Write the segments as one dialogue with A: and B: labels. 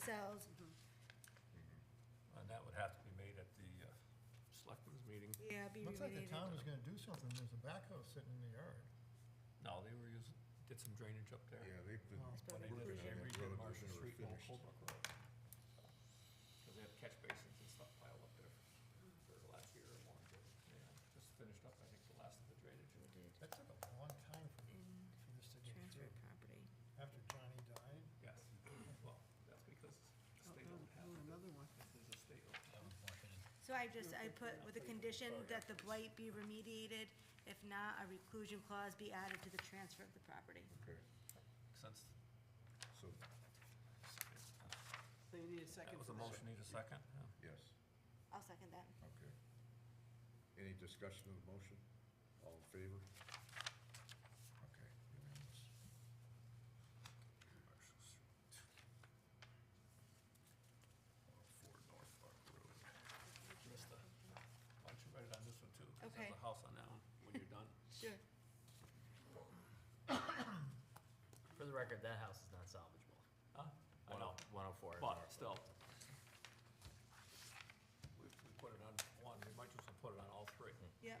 A: cells.
B: Mm-hmm.
C: And that would have to be made at the uh, selectmen's meeting.
A: Yeah, be
B: Looks like the
A: remediated.
B: town was gonna do something, there's a backhoe sitting in the yard.
C: No, they were using, did some drainage up there.
D: Yeah, they've been
B: Oh.
C: When they
D: working on
C: did, they
D: that
C: redid
D: road,
C: Marshall
D: they're
C: Street and Old
D: finished.
C: Holbrook Road. Because they have catch basins and stuff piled up there for the last year or more. Yeah, just finished up, I think, the last of the drainage.
B: That took a long time for,
A: In
B: for this to go
A: transfer
B: through.
A: of property.
B: After Johnny died,
C: Yes, well, that's because
E: Oh,
C: the state doesn't have it.
E: another one.
C: This is a state.
A: So I just, I put with the condition that the blight be remediated, if not, a reclusion clause be added to the transfer of the property.
D: Okay,
C: Since.
D: so,
E: So you need a second
C: That was
E: for
C: a
E: that.
C: motion, need a second? Yeah.
D: yes,
A: I'll second that.
D: okay. Any discussion of the motion? All in favor? Okay, unanimous.
C: Marshall Street. Four North Park Road. Krista, why don't you write it on this one too? 'cause
A: Okay.
C: There's a house on that one when you're done.
A: Sure.
F: For the record, that house is not salvageable. oh,
C: Huh? I know,
F: 104. is
C: but
F: our-
C: still. We, we put it on one, we might just put it on all three.
A: Yep.
C: Hmm.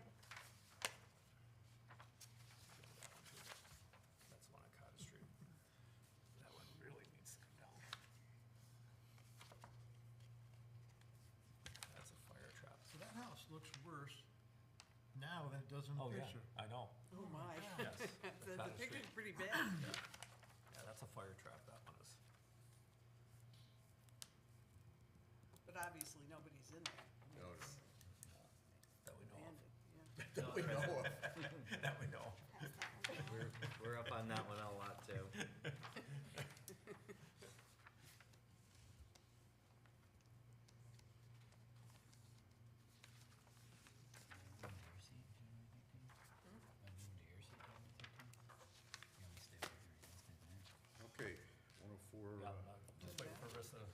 C: That's one on Cottage Street. That one really needs to come down. That's a fire trap.
B: so that house looks worse now than it does in the
C: Oh, yeah,
B: picture.
C: I know,
E: Oh, my.
C: yes.
E: The, the
C: Cottage Street.
E: picture's pretty bad.
C: Yeah, that's a fire trap, that one is.
E: But obviously, nobody's in there. I mean,
D: No,
E: it's
C: That we know
E: abandoned,
C: of.
E: yeah.
F: No,
D: We know of.
C: That we know.
A: Pass that one down.
F: We're, we're up on that one a lot too.
D: Okay, one oh four,
C: Yeah,
D: uh,
C: I'm just waiting for Rissa to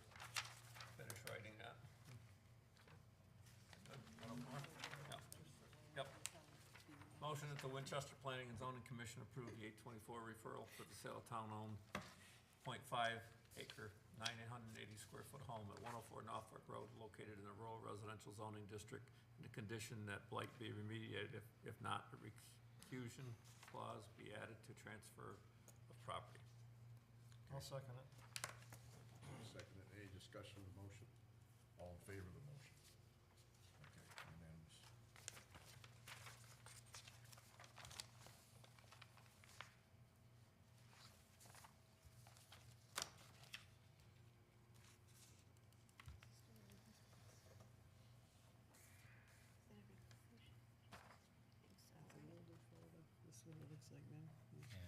C: finish writing that. Yep. Yep. Motion that the Winchester Planning and Zoning Commission approve the eight twenty-four referral for the sale of town-owned 0.5 acre, nine hundred and eighty square foot home at one oh four Norfolk Road located in the rural residential zoning district in the condition that blight be remediated, if, if not, a reclusion clause be added to transfer of property.
B: I'll second it.
D: second, it. any discussion of the motion? All in favor of the motion? Okay, unanimous.
E: That's an older photo. This one it looks like now. Mhm.
C: Yeah,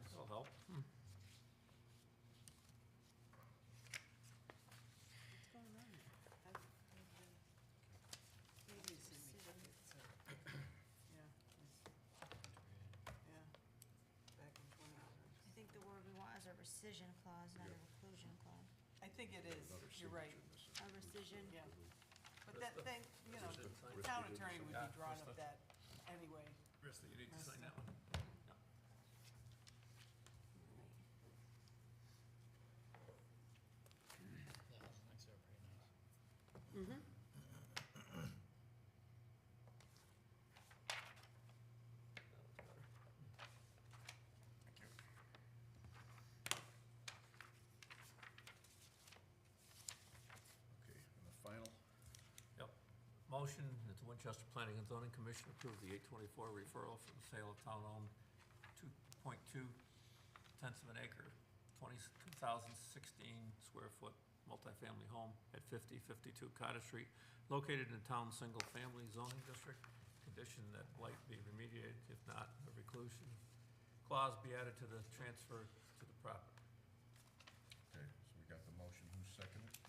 C: that'll help.
E: What's going on there? I've- I've been- Nobody's seen me check it, so. Yeah. it's- Yeah. Back and forth.
A: I think the word we want is a rescission clause, not a reclusion clause.
E: I think it is,
D: Another
E: you're right.
D: signature missing.
A: A rescission,
E: Yeah. But
C: That's the-
E: that thing, you know,
D: that's the- that's
E: the
D: the
E: town
D: good
E: attorney would
C: Yeah,
E: be drawing
C: that's
E: up
C: the-
E: that anyway.
C: Rista, you need to sign that one. No.
E: Mm-hmm.
C: That looks better.
D: Okay, and the final?
C: Yep. Motion that the Winchester Planning and Zoning Commission approve the eight twenty-four referral for the sale of town-owned two point two tenths of an acre, twenty, two thousand sixteen square foot multifamily home at fifty fifty-two Cottage Street, located in the town single-family zoning district, condition that blight be remediated, if not, a reclusion clause be added to the transfer to the property.
D: Okay, so we got the motion, who's seconded?